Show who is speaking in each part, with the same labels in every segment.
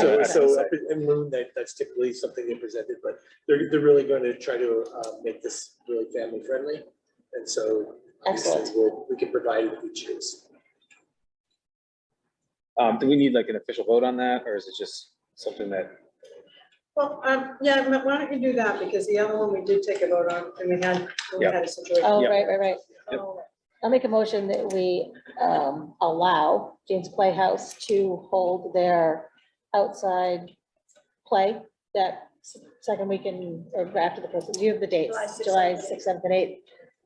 Speaker 1: So,
Speaker 2: Right.
Speaker 1: so up in- in Moon, that, that's typically something they presented, but they're, they're really going to try to, uh, make this really family friendly. And so. obviously,
Speaker 2: Excellent.
Speaker 1: we'll- We can provide it if we choose.
Speaker 3: Um, do we need like an official vote on that, or is it just something that,
Speaker 4: Well, um, yeah, but why don't you do that, because the other one we did take a vote on, and we had, we
Speaker 3: Yeah.
Speaker 4: had a situation.
Speaker 2: Oh,
Speaker 3: Yep.
Speaker 2: right, right, right.
Speaker 3: Yep.
Speaker 2: I'll make a motion that we um, allow James Playhouse to hold their outside play that s- second weekend or after the first, do you have the dates?
Speaker 4: July sixth,
Speaker 2: July
Speaker 4: seventh,
Speaker 2: sixth, seventh, and eighth,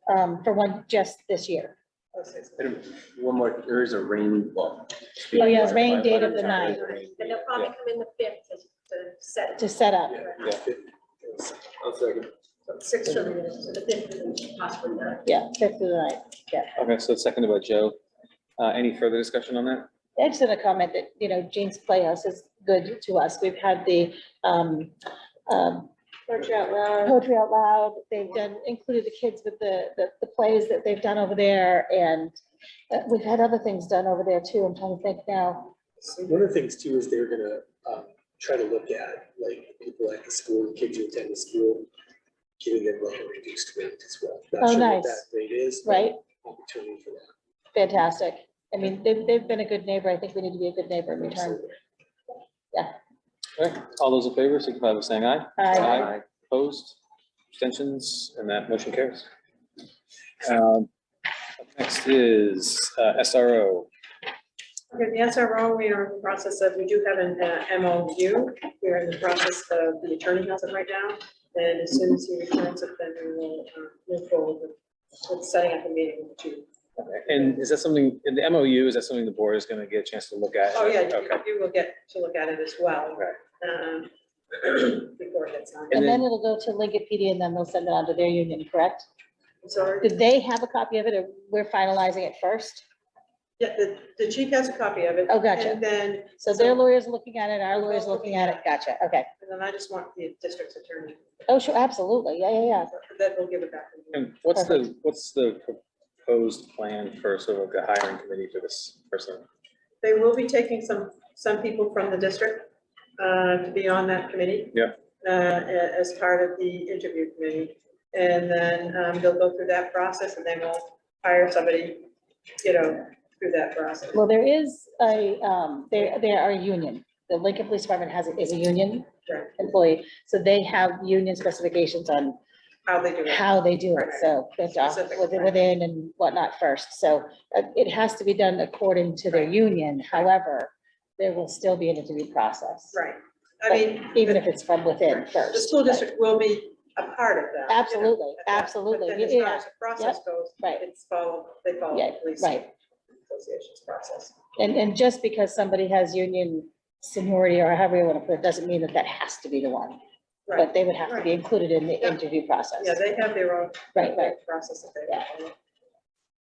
Speaker 2: um, for one, just this year.
Speaker 5: And One more, there is a rain, well.
Speaker 2: Oh, yeah, it's rain
Speaker 5: my- my
Speaker 2: date of the
Speaker 5: weather's
Speaker 2: ninth.
Speaker 5: already-
Speaker 6: And they'll probably come in the fifth to, to set.
Speaker 2: to set up.
Speaker 1: Yeah.
Speaker 3: Yeah.
Speaker 1: I'll second.
Speaker 6: Six for the, to the fifth, and possibly not.
Speaker 2: Yeah, fifth of the night.
Speaker 3: okay, so it's seconded by Joe. Uh, any further discussion on that?
Speaker 2: I just had a comment that, you know, Jean's Playhouse is good to us. We've had the um, um,
Speaker 6: Poetry out loud.
Speaker 2: Poetry Out Loud, they've done, included the kids with the, the, the plays that they've done over there, and uh, we've had other things done over there too, I'm trying to think now.
Speaker 1: One of the things too is they're gonna, um, try to look at, like, people at the school, kids who attend the school, giving them like a reduced rate as well. Not
Speaker 2: Oh,
Speaker 1: sure what
Speaker 2: nice.
Speaker 1: that Rate is. but
Speaker 2: Right,
Speaker 1: Opportunity for that.
Speaker 2: fantastic. I mean, they've, they've been a good neighbor, I think we need to be a good neighbor in return.
Speaker 3: All right, all those in favor, signify by saying aye.
Speaker 2: Aye.
Speaker 3: Opposed, abstentions, and that motion carries. Um, up Next is uh, SRO.
Speaker 4: Okay, the SRO, we are in the process of, we do have an uh, MOU, we're in the process of, the attorney has it right now, and as soon as he returns it, then we will uh, move forward with- with setting up a meeting with you.
Speaker 3: And is that something, in the MOU, is that something the board is gonna get a chance to look at?
Speaker 4: Oh, yeah, you-
Speaker 3: Okay.
Speaker 4: you will get to look at it as well.
Speaker 3: Right.
Speaker 4: um, Before it gets on,
Speaker 3: And
Speaker 2: And then it'll go to Linkopedia, and then they'll send it on to their union, correct?
Speaker 4: sorry.
Speaker 2: Did they have a copy of it, or we're finalizing it first?
Speaker 4: Yeah, the, the chief has a copy of it.
Speaker 2: Oh, gotcha.
Speaker 4: And then,
Speaker 2: So their lawyer's looking at it, our lawyer's looking at it, gotcha, okay.
Speaker 4: and then I just want the district's attorney,
Speaker 2: Oh, sure, absolutely, yeah, yeah, yeah.
Speaker 4: that will give it back. to you.
Speaker 3: And what's the, what's the proposed plan for sort of like a hiring committee for this person?
Speaker 4: They will be taking some, some people from the district uh, to be on that committee.
Speaker 3: Yeah.
Speaker 4: uh, a- As part of the interview committee. And then um, they'll go through that process and then we'll hire somebody, you know, through that process.
Speaker 2: Well, there is a, um, there, there are a union. The Lincoln Police Department has, is a union
Speaker 4: Right.
Speaker 2: employee, so they have union specifications on
Speaker 4: How they do it.
Speaker 2: how they do it, so that's off
Speaker 4: Specific,
Speaker 2: with-
Speaker 4: right.
Speaker 2: within and whatnot first, so uh, it has to be done according to their union, however, there will still be an interview process.
Speaker 4: Right. I mean.
Speaker 2: Even
Speaker 4: the-
Speaker 2: if it's from within first.
Speaker 4: The school
Speaker 2: right.
Speaker 4: district will be a part of that. you know,
Speaker 2: Absolutely,
Speaker 4: at that.
Speaker 2: absolutely,
Speaker 4: But then as far
Speaker 2: yeah,
Speaker 4: as the process goes,
Speaker 2: right.
Speaker 4: it's follow, they follow
Speaker 2: Yeah,
Speaker 4: the police
Speaker 2: right.
Speaker 4: association's process.
Speaker 2: And, and just because somebody has union seniority or however you want to put it, doesn't mean that that has to be the one.
Speaker 4: Right.
Speaker 2: But they would have to be included in the
Speaker 4: Yeah.
Speaker 2: interview process.
Speaker 4: Yeah, they have their own.
Speaker 2: Right, right.
Speaker 4: Process that
Speaker 2: Yeah.
Speaker 4: they follow.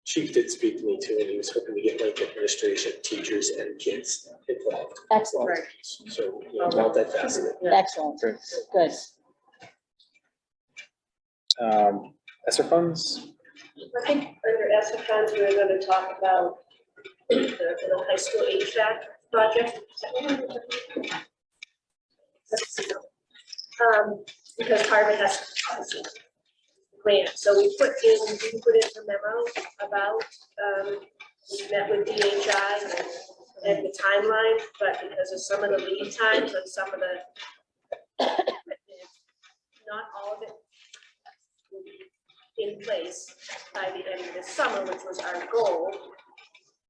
Speaker 1: Chief did speak to me too, and he was hoping to get like administration, teachers and kids involved.
Speaker 2: Excellent,
Speaker 4: Right.
Speaker 1: So, you know, multifaceted.
Speaker 4: Yeah.
Speaker 2: excellent,
Speaker 3: Great.
Speaker 2: good.
Speaker 3: Um, ESER funds?
Speaker 6: I think under ESER funds, we we're gonna talk about the little high school HVAC project. Um, because part of it has grant, so we put in, we put in a memo about, um, we met with DHI and the timeline, but because of some of the lead times and some of the not all of it will be in place by the end of this summer, which was our goal.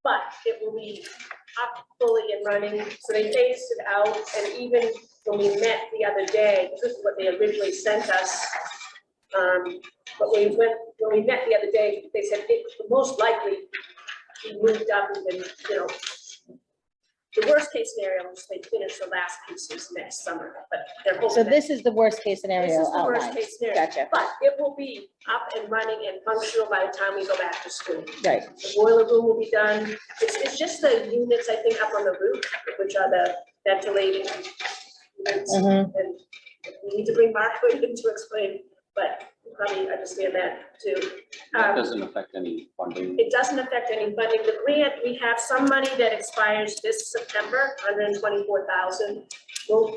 Speaker 6: But it will be up fully and running, so they phased it out, and even when we met the other day, this is what they originally sent us. Um, but we went, when we met the other day, they said it would most likely be moved up even, you know. The worst case scenario is they finish the last pieces next summer, but they're hoping
Speaker 2: So
Speaker 6: that-
Speaker 2: this is the worst case
Speaker 6: this
Speaker 2: scenario
Speaker 6: is the worst
Speaker 2: outlined.
Speaker 6: case scenario.
Speaker 2: Gotcha,
Speaker 6: But it will be up and running and functional by the time we go back to school.
Speaker 2: right,
Speaker 6: The boiler room will be done. It's, it's just the units, I think, up on the roof, which are the ventilating units.
Speaker 2: Mhm.
Speaker 6: And we need to bring Mark Hood in to explain, but probably understand that too.
Speaker 5: That
Speaker 6: Um,
Speaker 5: doesn't affect any funding.
Speaker 6: It doesn't affect any funding. The grant, we have some money that expires this September, hundred and twenty-four thousand. We'll